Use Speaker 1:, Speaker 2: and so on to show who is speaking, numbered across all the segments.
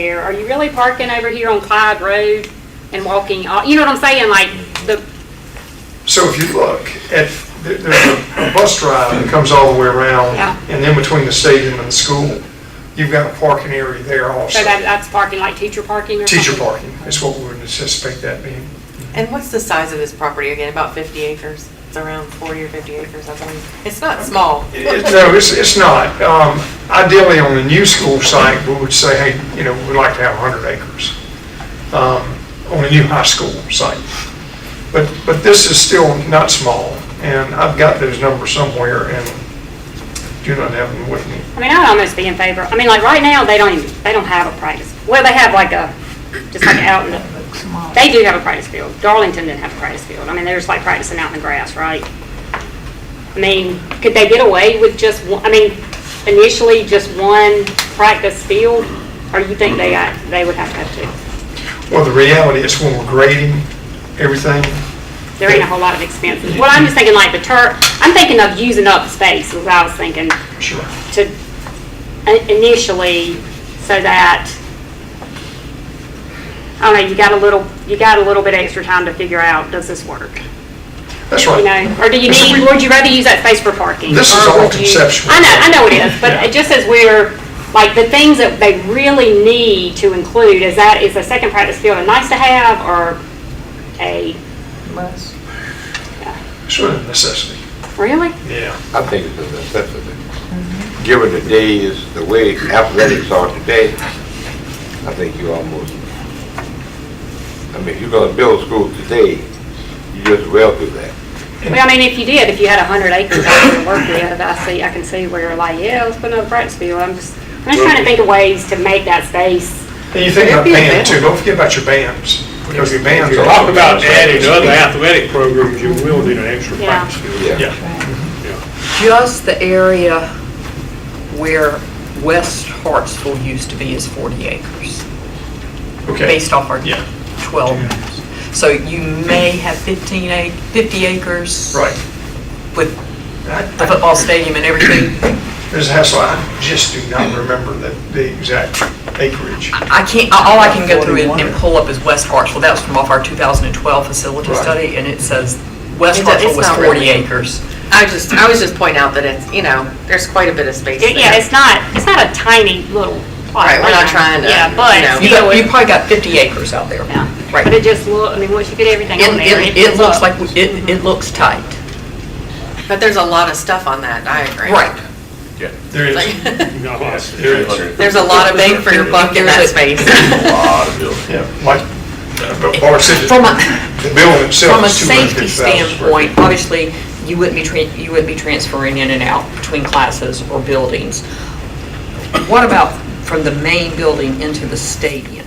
Speaker 1: there, are you really parking over here on Clyde Road and walking, all- you know what I'm saying, like, the,
Speaker 2: So if you look at, there- there's a a bus drive that comes all the way around,
Speaker 1: Yeah.
Speaker 2: and then between the stadium and the school, you've got a parking area there
Speaker 1: so
Speaker 2: also.
Speaker 1: that, that's parking, like teacher parking or something?
Speaker 2: Teacher parking is what we would anticipate that being.
Speaker 3: And what's the size of this property again? About 50 acres? It's around 40 or 50 acres, I believe. It's not small.
Speaker 2: It- it- No, it's, it's not. Um, Ideally, on the new school site, we would say, hey, you know, we'd like to have 100 acres um, on a new high school site. But, but this is still not small, and I've got those numbers somewhere and do not have them with me.
Speaker 1: I mean, I'd almost be in favor, I mean, like, right now, they don't even, they don't have a practice, well, they have like a, just like out in the, they do have a practice field, Darlington didn't have a practice field, I mean, they're just like practicing out in the grass, right? I mean, could they get away with just, one? I mean, initially, just one practice field, or you think they got, they would have to have
Speaker 2: Well, the reality is when we're grading everything,
Speaker 1: two? There ain't a whole lot of expenses, well, I'm just thinking like the turf, I'm thinking of using up space, is what I was thinking,
Speaker 2: sure.
Speaker 1: to i- initially, so that, I don't know, you got a little, you got a little bit extra time to figure out, does this work?
Speaker 2: That's
Speaker 1: You
Speaker 2: right.
Speaker 1: know, or do you need, would you rather use that space for parking?
Speaker 2: This is
Speaker 1: Or
Speaker 2: all
Speaker 1: would you-
Speaker 2: conceptual.
Speaker 1: I know, I know it is, but
Speaker 2: Yeah.
Speaker 1: it just as we're, like, the things that they really need to include, is that, is a second practice field a nice to have, or a,
Speaker 2: Sort of necessity.
Speaker 1: really?
Speaker 2: Yeah.
Speaker 4: I think it's a necessity. Given the days, the way athletics are today, I think you almost, I mean, if you're gonna build a school today, you just well do that.
Speaker 1: Well, I mean, if you did, if you had a hundred acres out there to work with, I see, I can see where you're like, yeah, let's put another practice field, I'm just, I'm just trying to think of ways to make that space.
Speaker 2: And you think about
Speaker 3: There'd be a
Speaker 2: band
Speaker 3: band.
Speaker 2: too, don't forget about your bands, because your bands are.
Speaker 5: Talk about adding other athletic programs, you will need an extra
Speaker 1: Yeah.
Speaker 5: practice field.
Speaker 2: Yeah.
Speaker 6: Just the area where West Hartsville used to be is 40 acres,
Speaker 2: Okay,
Speaker 6: based off our
Speaker 2: Yeah.
Speaker 6: 12. So you may have 15, ac- 50 acres.
Speaker 2: right.
Speaker 6: With the
Speaker 2: I- I-
Speaker 6: football stadium and everything.
Speaker 2: There's a hassle, I just do not remember the, the exact acreage.
Speaker 6: I can't, all I can go through and and pull up is West Hartsville. That was from off our 2012 facility
Speaker 2: Right.
Speaker 6: study, and it says West
Speaker 3: It do- it's
Speaker 6: Hartsville was
Speaker 3: not
Speaker 6: 40
Speaker 3: really-
Speaker 6: acres.
Speaker 3: I just, I was just pointing out that it's, you know, there's quite a bit of space
Speaker 1: Yeah,
Speaker 3: there.
Speaker 1: Yeah, it's not, it's not a tiny little plot.
Speaker 3: Right, we're not
Speaker 1: land.
Speaker 3: trying to,
Speaker 1: Yeah,
Speaker 3: you know.
Speaker 1: but
Speaker 6: You
Speaker 1: still,
Speaker 6: got- you
Speaker 1: it-
Speaker 6: probably got 50 acres out there.
Speaker 1: yeah.
Speaker 6: Right.
Speaker 1: But it just look, I mean, once you get everything on
Speaker 6: It-
Speaker 1: there, it
Speaker 6: It it looks
Speaker 1: looks
Speaker 6: like, it
Speaker 3: Mm-hmm.
Speaker 6: it looks tight.
Speaker 3: But there's a lot of stuff on that, I agree.
Speaker 2: There is,
Speaker 3: Like,
Speaker 5: You got lots of-
Speaker 2: there is,
Speaker 3: There's a lot of bang for your buck in that space.
Speaker 2: yeah, like, uh, but Bart said,
Speaker 6: From a-
Speaker 2: the the building itself
Speaker 6: From a
Speaker 2: is two
Speaker 6: safety
Speaker 2: hundred fifty thousand square
Speaker 6: standpoint,
Speaker 2: feet.
Speaker 6: obviously, you wouldn't be, tran- you wouldn't be transferring in and out between classes or buildings. What about from the main building into the stadium?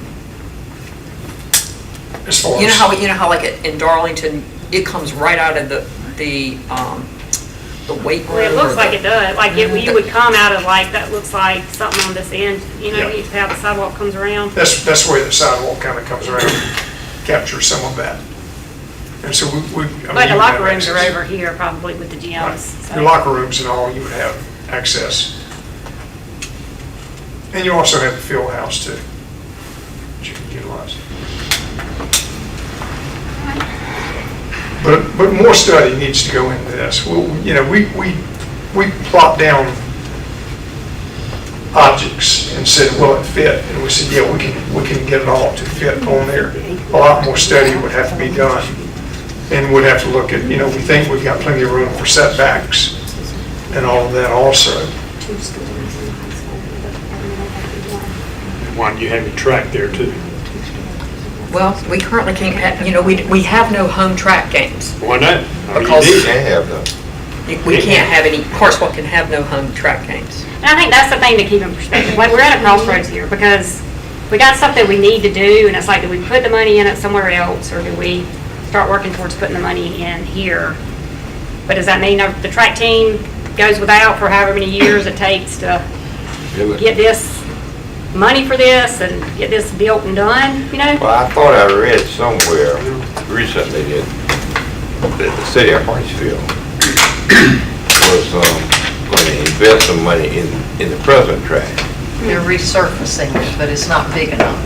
Speaker 2: As far
Speaker 6: You know how,
Speaker 2: as,
Speaker 6: you know how like in Darlington, it comes right out of the, the, um, the weight room?
Speaker 1: Well, it looks
Speaker 6: or
Speaker 1: like
Speaker 6: the-
Speaker 1: it does, like, it- you would come out of like, that looks like something on this end, you know,
Speaker 2: Yeah.
Speaker 1: you have the sidewalk comes around.
Speaker 2: that's, that's where the sidewalk kind of comes around, captures some of that. And so we, we. I
Speaker 1: But
Speaker 2: mean, you
Speaker 1: the
Speaker 2: would
Speaker 1: locker
Speaker 2: have
Speaker 1: rooms are
Speaker 2: access.
Speaker 1: over here probably with the gyms. so-
Speaker 2: Your locker rooms and all, you would have access. And you also have the field house too, that you can utilize. But, but more study needs to go into this. Well, you know, we, we, we plop down objects and said, will it fit? And we said, yeah, we can, we can get it all to fit on there. A lot more study would have to be done and would have to look at, you know, we think we've got plenty of room for setbacks and all of that also.
Speaker 5: Why do you have your track there too?
Speaker 6: Well, we currently can't, have- you know, we, we have no home track games.
Speaker 5: Why not? I mean, you
Speaker 6: Because-
Speaker 4: You
Speaker 5: need
Speaker 4: can have them.
Speaker 6: You- We can't have any, Hartsville can have no home track games.
Speaker 1: And I think that's the thing to keep in perspective. Like, we're at a crossroads here because we got stuff that we need to do, and it's like, do we put the money in it somewhere else, or do we start working towards putting the money in here? But does that mean our- the track team goes without for however many years it takes to
Speaker 4: Do it.
Speaker 1: get this money for this and get this built and done, you know?
Speaker 4: Well, I thought I read somewhere recently that that the city of Hartsfield was um, going to invest some money in, in the present track.
Speaker 6: They're resurfacing it, but it's not big enough.